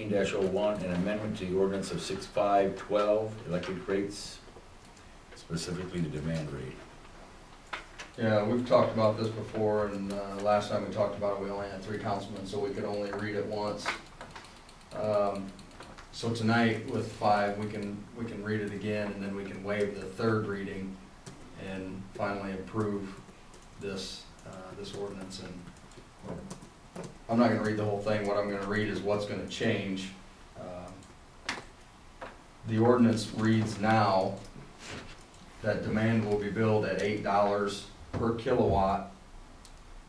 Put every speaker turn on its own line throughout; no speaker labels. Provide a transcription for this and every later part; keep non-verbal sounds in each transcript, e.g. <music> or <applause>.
eighteen oh one an amendment to the ordinance of six five twelve, electric rates, specifically the demand rate.
Yeah, we've talked about this before, and uh, last time we talked about it, we only had three councilmen, so we could only read it once. Um, So tonight, with five, we can, we can read it again, and then we can waive the third reading and finally approve this, uh, this ordinance, and I'm not gonna read the whole thing, what I'm gonna read is what's gonna change. Um, The ordinance reads now that demand will be billed at eight dollars per kilowatt,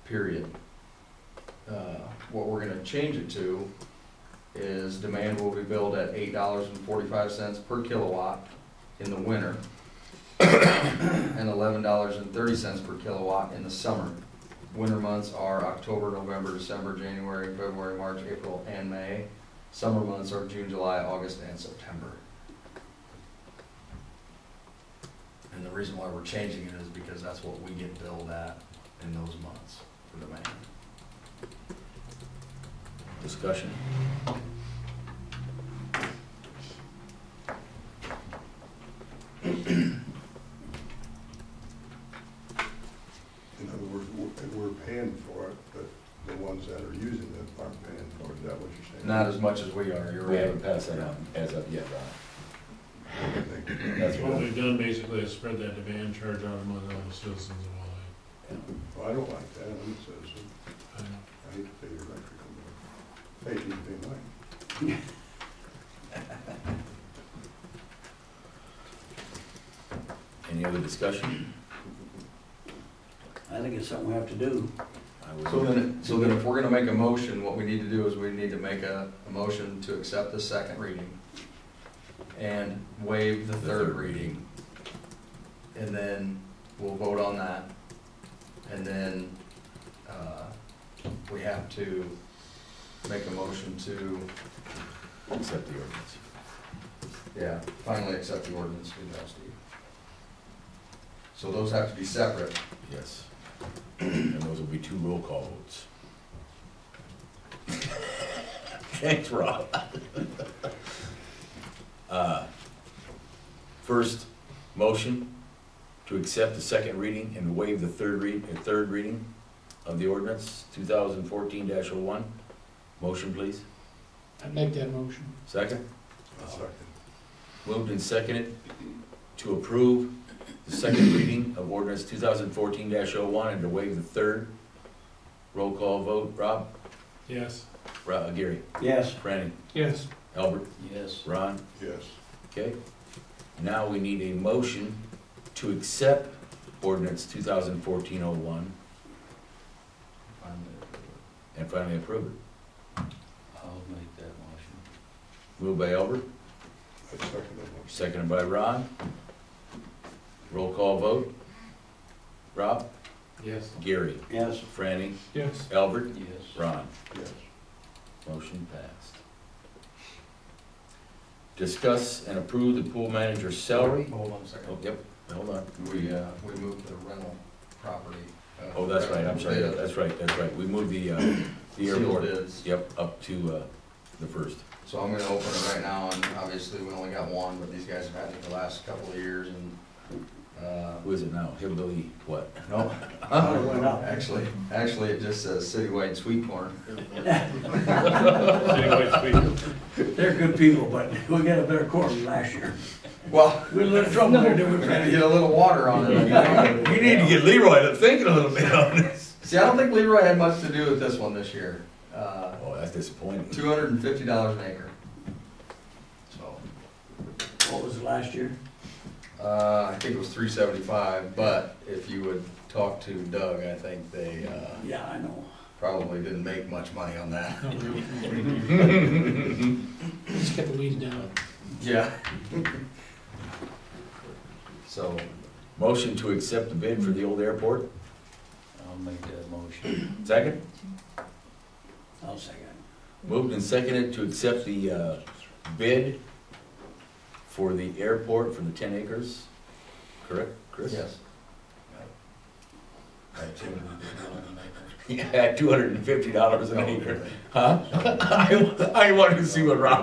period. Uh, What we're gonna change it to is demand will be billed at eight dollars and forty-five cents per kilowatt in the winter, <coughs> and eleven dollars and thirty cents per kilowatt in the summer. Winter months are October, November, December, January, February, March, April, and May. Summer months are June, July, August, and September. And the reason why we're changing it is because that's what we get billed at in those months for demand.
Discussion?
In other words, we're- we're paying for it, but the ones that are using it aren't paying for it, is that what you're saying?
Not as much as we are, you're
We
right.
haven't passed that on as of yet, Ron. That's
What
what,
we've done basically is spread that demand charge out among all the citizens of
Well, I don't like that, I'm a citizen,
Walleye.
I hate to pay your electrical bill. Hey, you can pay mine.
any other discussion?
I think it's something we have to do.
I would-
So then, so then if we're gonna make a motion, what we need to do is we need to make a, a motion to accept the second reading and waive the third reading. And then we'll vote on that. And then, uh, we have to make a motion to,
Accept the ordinance.
Yeah, finally accept the ordinance, good job, Steve. So those have to be separate.
Yes. And those will be two roll call votes. <laughs> Thanks, Rob. <laughs> Uh, First, motion to accept the second reading and waive the third read, uh, third reading of the ordinance, two thousand fourteen oh one Motion, please.
I'd make that motion.
Second?
I'll second.
Moved and seconded to approve the second reading of ordinance two thousand fourteen oh one and to waive the third. Roll call vote, Rob,
Yes.
Rob, Gary,
Yes.
Franny,
Yes.
Albert,
Yes.
Ron,
Yes,
okay? Now we need a motion to accept ordinance two thousand fourteen oh one and finally approve it.
I'll make that motion.
Moved by Albert,
I second that motion.
seconded by Ron. Roll call vote, Rob,
Yes.
Gary,
Yes.
Franny,
Yes.
Albert,
Yes.
Ron.
Yes,
Motion passed. Discuss and approve the pool manager's salary.
Hold on a
Oh,
second.
yep, hold on.
We, uh, we moved the rental property. uh,
Oh, that's right, I'm sorry,
bid,
that's right, that's right. We moved the,
<clears throat>
uh, the
sealed
airport,
bids.
yep, up to, uh, the first.
So I'm gonna open it right now, and obviously, we only got one, but these guys have had it the last couple of years, and, uh,
Who is it now? Hillbilly, what?
<laughs> no.
Oh, it went up.
Actually, actually, it just says citywide sweet corn.
Anyway,
They're good people, but we got a better quarter than last year.
Well, <laughs>
We had a little trouble there, didn't
we're
we,
gonna
Randy?
get a little water
<laughs>
on it, you know?
You need to get Leroy to thinking a little bit on this.
<laughs> See, I don't think Leroy had much to do with this one this year. Uh,
Oh, that's disappointing.
Two hundred and fifty dollars an acre. So,
What was it last year?
uh, I think it was three seventy-five, but if you would talk to Doug, I think they, uh,
Yeah, I know.
probably didn't make much money on that.
No, no, no. Just kept the leaves down.
Yeah. So,
Motion to accept the bid for the old airport.
I'll make that motion.
Second?
I'll second.
Moved and seconded to accept the, uh, bid for the airport for the ten acres. Correct, Chris?
yes.
That's what we
<laughs>
did.
at two hundred and fifty dollars an acre, huh? I, I wanted to see what Rob